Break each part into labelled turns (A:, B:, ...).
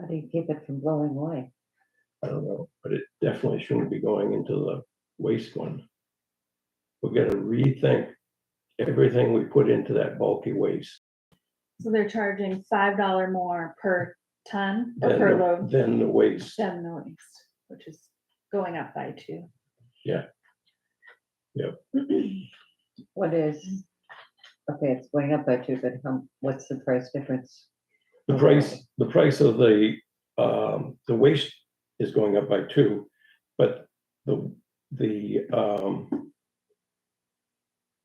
A: How do you keep it from blowing away?
B: I don't know, but it definitely shouldn't be going into the waste one. We've got to rethink everything we put into that bulky waste.
C: So they're charging five dollar more per ton or
B: than
C: per
B: the-
C: load
B: Than the waste,
C: than the waste, which is going up by two.
B: Yeah. Yep.
A: What is, okay, it's going up by two, but how, what's the price difference?
B: the price, the price of the, um, the waste is going up by two, but the, the, um,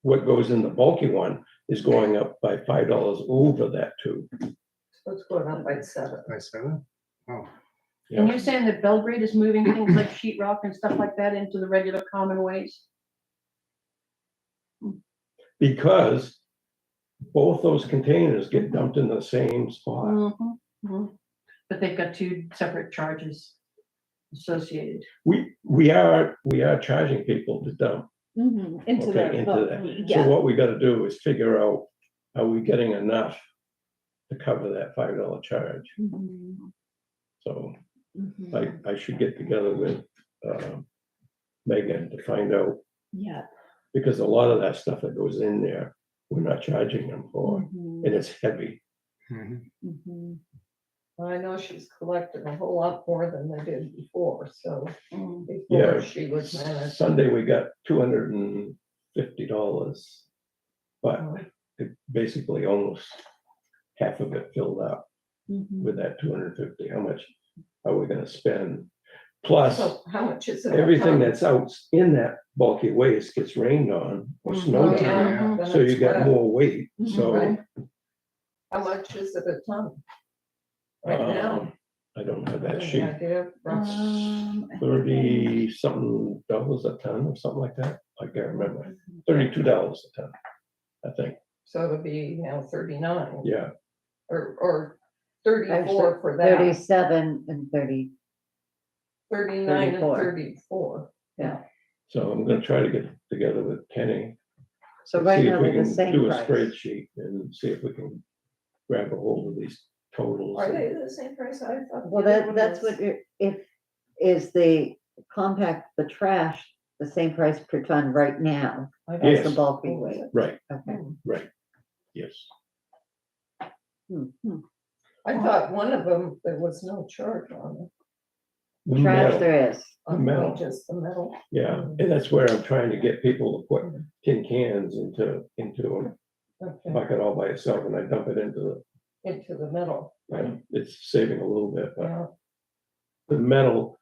B: what goes in the bulky one is going up by five dollars over that two.
D: Let's go down by seven.
E: Did I say that? Oh,
F: And you're saying that Belgrade is moving things like sheetrock and stuff like that into the regular common ways?
B: Because both those containers get dumped in the same spot.
F: Mhm,
D: Mm-hmm,
F: mhm. But they've got two separate charges associated.
B: We, we are, we are charging people to dump.
C: Into
B: Okay,
C: the,
B: into
C: vote.
B: So
C: yeah,
B: what we gotta do is figure out, are we getting enough to cover that five dollar charge? So I, I should get together with, um, Megan to find out,
C: yeah.
B: because a lot of that stuff that goes in there, we're not charging them for,
C: Mhm,
B: and it's heavy. Mm-hmm.
E: mhm.
C: mhm.
D: I know she's collected a whole lot more than they did before, so
F: Mm.
B: Yeah.
D: before she was managed.
B: Sunday, we got two hundred and fifty dollars, but it basically almost half of it filled up with that two hundred and fifty, how much are we gonna spend? Plus,
D: Oh, So how much is it?
B: everything that's out in that bulky waste gets rained on or
D: Oh,
B: snowed on,
D: yeah, then
B: so you
D: it's
B: got
D: wet.
B: more weight,
C: Mhm,
B: so.
D: Mm-hmm, right. How much is it a ton? Right now.
B: um, I don't have that
D: Any
B: sheet,
D: idea?
C: Um, I think I-
B: thirty something dollars a ton or something like that, I can't remember,
D: Mm-hmm.
B: thirty-two dollars a ton, I think,
D: So it'll be now thirty-nine
B: yeah,
D: or, or thirty-four
A: Actually,
D: for that,
A: Thirty-seven and thirty,
D: thirty-nine and
A: 34.
D: thirty-four.
A: yeah.
B: so I'm gonna try to get together with Kenny.
A: So
B: and
A: right
B: see if
A: now,
B: we
A: we're the
B: can
A: same
B: Do a
A: price.
B: spreadsheet and see if we can grab a hold of these totals.
D: Are
B: and-
D: they the same price I thought? the
A: Well,
D: other
A: that,
D: one
A: that's
D: was?
A: what, you're- if, is the compact, the trash, the same price per ton right now?
D: I
A: as The
B: Yes.
A: bulky
D: Oh, is
A: weight,
D: it?
B: Right,
A: okay.
B: right, yes,
A: Hmm, hmm.
B: Mm-hmm.
D: I thought one of them, there was no charge on it.
B: The
A: Trash
B: metal,
A: there is,
D: on
B: metal.
D: Just the metal.
B: yeah, and that's where I'm trying to get people to put tin cans into, into a
D: Okay,
B: bucket all by itself, and I dump it into
D: into the metal,
B: the, and it's saving a little bit, but
D: yeah.
B: the metal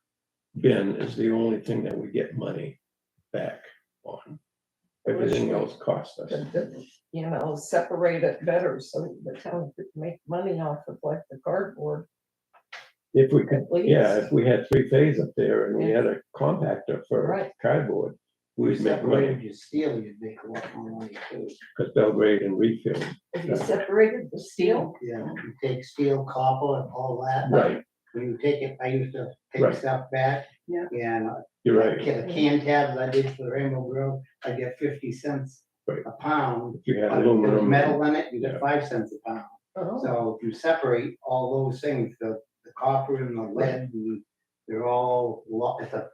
B: bin is the only thing that we get money back on. Everything
D: Which-
B: else costs us.
D: But the- You know, separate it better so the town could make money off of like the cardboard.
B: If we could,
D: At least.
B: yeah, if we had three phase up there and we had a compactor for
D: Right.
B: cardboard, we'd make money,
G: Separated your steel, you'd make a lot more money too.
B: because Belgrade and Reedfield.
D: If you separated the steel,
G: Yeah, you take steel, copper and all that.
B: Right,
G: When you take it, I used to
B: Right.
G: take stuff back.
F: Yeah.
G: And
B: you're
G: I
B: right.
G: get a can tabs I did for the Rainbow Grove, I get fifty cents
B: Right.
G: a pound.
B: If you had
G: But if there's
B: aluminum.
G: Metal in it, you
B: Yeah.
G: get five cents a pound.
D: oh,
G: So if you separate all those things, the, the copper and the lead, and they're all, lo- it's a,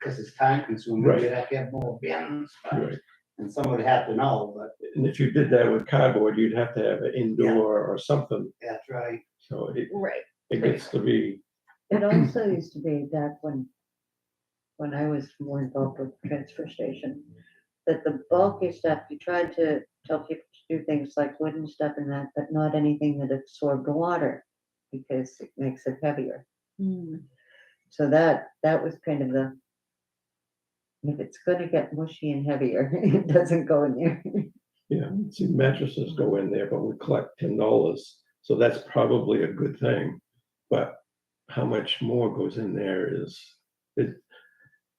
G: because it's time consuming,
B: Right.
G: you'd have to have more bins. but-
B: You're right.
G: And someone would have to know, but
B: And if you did that with cardboard, you'd have to have an indoor or something,
G: that's right.
B: so it,
C: Right,
B: it gets to be,
A: It also used to be back when, when I was more involved with the transfer station, that the bulky stuff, you tried to tell people to do things like wooden stuff and that, but not anything that absorbed water because it makes it heavier.
F: Mm-hmm.
C: Mm,
A: So that, that was kind of the, if it's gonna get mushy and heavier, it doesn't go in there.
B: yeah. See, mattresses go in there, but we collect ten dollars, so that's probably a good thing. But how much more goes in there is, it,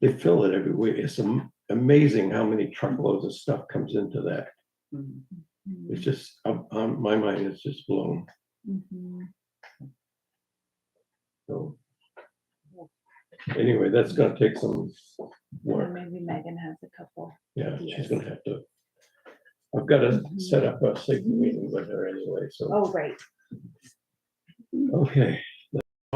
B: they fill it every week. It's am- amazing how many truckloads of stuff comes into that.
C: mm,
B: It's just, um, um, my mind is just blown,
C: mhm.
B: so. Anyway, that's gonna take some work.
C: Or Maybe Megan has a couple.
B: Yeah, she's
C: Yes.
B: gonna have to. I've got to set up a secret meeting with her anyway, so,
C: Oh, right.
B: okay,